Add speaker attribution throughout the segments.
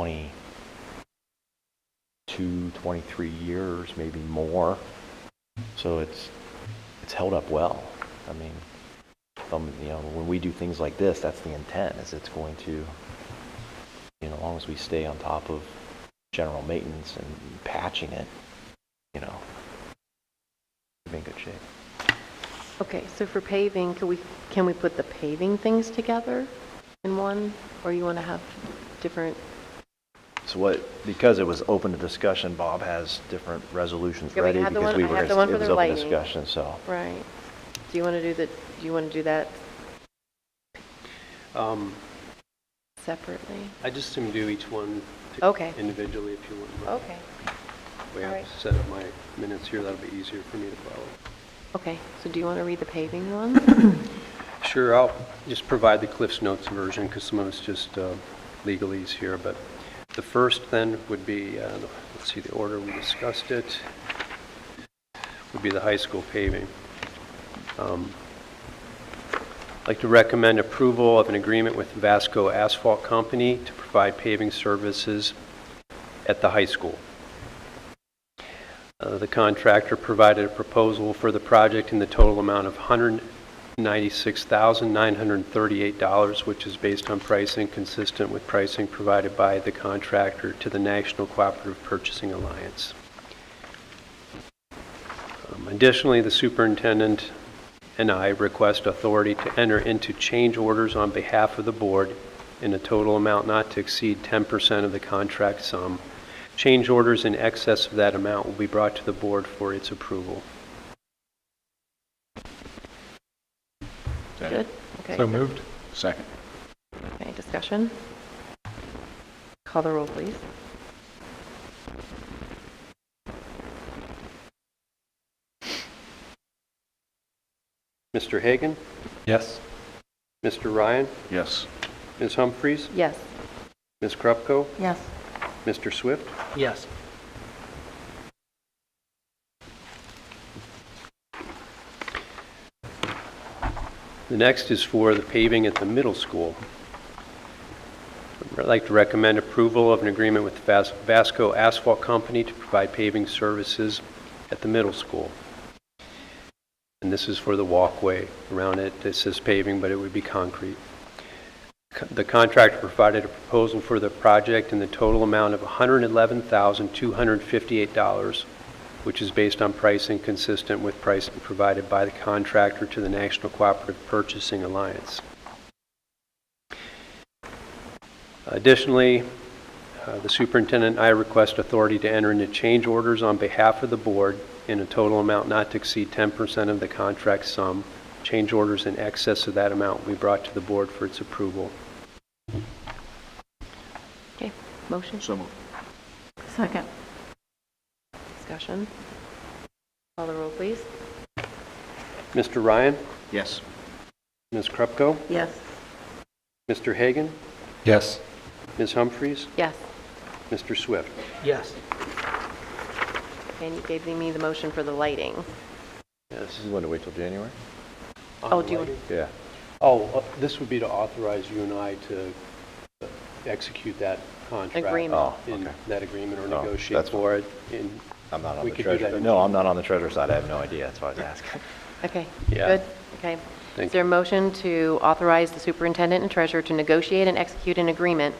Speaker 1: 22, 23 years, maybe more. So it's, it's held up well. I mean, um, you know, when we do things like this, that's the intent, is it's going to, you know, as long as we stay on top of general maintenance and patching it, you know, we'll be in good shape.
Speaker 2: Okay, so for paving, can we, can we put the paving things together in one? Or you want to have different,
Speaker 1: So what, because it was open to discussion, Bob has different resolutions
Speaker 2: Yeah, we
Speaker 1: ready
Speaker 2: had the
Speaker 1: because
Speaker 2: one-
Speaker 1: we
Speaker 2: I
Speaker 1: were,
Speaker 2: had
Speaker 1: gonna-
Speaker 2: the one
Speaker 1: it
Speaker 2: for
Speaker 1: was
Speaker 2: the
Speaker 1: open
Speaker 2: lighting.
Speaker 1: discussion, so.
Speaker 2: right? Do you want to do that, do you want to do that
Speaker 3: Um,
Speaker 2: separately?
Speaker 3: I just assume do each one
Speaker 2: Okay. Oh,
Speaker 3: individually if you wouldn't. mind.
Speaker 2: Okay,
Speaker 3: We have
Speaker 2: alright.
Speaker 3: set up my minutes here, that'll be easier for me to follow.
Speaker 2: okay, so do you want to read the paving one?
Speaker 3: Sure, I'll just provide the Cliff's Notes version because some of it's just uh, legalese here, but the first then would be, uh, let's see, the order we discussed it, would be the high school paving. Um, I'd like to recommend approval of an agreement with Vasco Asphalt Company to provide paving services at the high school. Uh, The contractor provided a proposal for the project in the total amount of $196,938, which is based on pricing consistent with pricing provided by the contractor to the National Cooperative Purchasing Alliance. Um, Additionally, the superintendent and I request authority to enter into change orders on behalf of the board in a total amount not to exceed 10% of the contract sum. Change orders in excess of that amount will be brought to the board for its approval.
Speaker 2: Good? Okay.
Speaker 4: So moved. Second.
Speaker 2: Any discussion? Call the roll, please.
Speaker 3: Mr. Hagan?
Speaker 4: Yes.
Speaker 3: Mr. Ryan?
Speaker 4: Yes.
Speaker 3: Ms. Humphries?
Speaker 2: Yes.
Speaker 3: Ms. Krupko?
Speaker 2: Yes.
Speaker 3: Mr. Swift?
Speaker 4: Yes.
Speaker 3: The next is for the paving at the middle school. I'd like to recommend approval of an agreement with Vas- Vasco Asphalt Company to provide paving services at the middle school. And this is for the walkway around it. This is paving, but it would be concrete. Co- The contractor provided a proposal for the project in the total amount of $111,258, which is based on pricing consistent with pricing provided by the contractor to the National Cooperative Purchasing Alliance. Additionally, uh, the superintendent and I request authority to enter into change orders on behalf of the board in a total amount not to exceed 10% of the contract sum. Change orders in excess of that amount will be brought to the board for its approval.
Speaker 2: Okay, motion,
Speaker 4: So moved.
Speaker 5: Second.
Speaker 2: discussion? Call the roll, please.
Speaker 3: Mr. Ryan,
Speaker 4: Yes.
Speaker 3: Ms. Krupko,
Speaker 5: Yes.
Speaker 3: Mr. Hagan,
Speaker 4: Yes.
Speaker 3: Ms. Humphries,
Speaker 2: Yes.
Speaker 3: Mr. Swift.
Speaker 4: Yes.
Speaker 2: And you gave me the motion for the lighting.
Speaker 3: Yes.
Speaker 1: You want to wait till January?
Speaker 2: Oh, do you want-
Speaker 1: Yeah.
Speaker 3: Oh, uh, this would be to authorize you and I to uh, execute that contract.
Speaker 2: Agreement.
Speaker 1: Oh,
Speaker 3: In
Speaker 1: okay.
Speaker 3: that agreement or
Speaker 1: Oh,
Speaker 3: negotiate
Speaker 1: that's fine.
Speaker 3: for it. And
Speaker 1: I'm not on
Speaker 3: We
Speaker 1: the
Speaker 3: could do that
Speaker 1: treasurer.
Speaker 3: in
Speaker 1: No, I'm not on the treasurer's side. I have no idea. That's why I was asking.
Speaker 2: Okay,
Speaker 3: Yeah.
Speaker 2: good, okay.
Speaker 3: Thank
Speaker 2: Is there a motion to authorize the superintendent and treasurer to negotiate and execute an agreement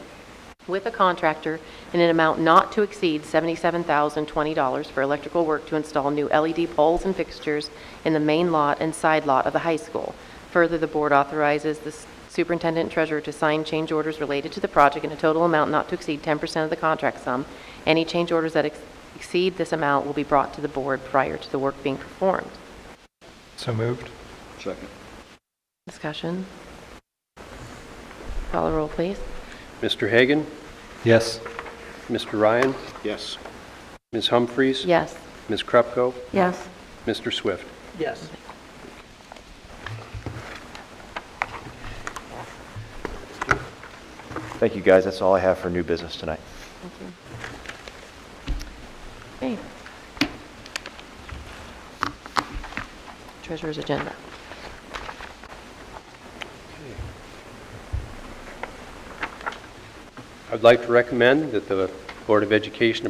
Speaker 2: with a contractor in an amount not to exceed $77,020 for electrical work to install new LED poles and fixtures in the main lot and side lot of the high school? Further, the board authorizes the superintendent and treasurer to sign change orders related to the project in a total amount not to exceed 10% of the contract sum. Any change orders that ex- exceed this amount will be brought to the board prior to the work being performed.
Speaker 4: So moved. Second.
Speaker 2: Discussion? Call the roll, please.
Speaker 3: Mr. Hagan,
Speaker 4: Yes.
Speaker 3: Mr. Ryan,
Speaker 4: Yes.
Speaker 3: Ms. Humphries.
Speaker 2: Yes.
Speaker 3: Ms. Krupko,
Speaker 5: Yes.
Speaker 3: Mr. Swift.
Speaker 4: Yes.
Speaker 1: Thank you, guys. That's all I have for new business tonight.
Speaker 2: Thank you. Okay. Treasurer's agenda.
Speaker 3: I'd like to recommend that the Board of Education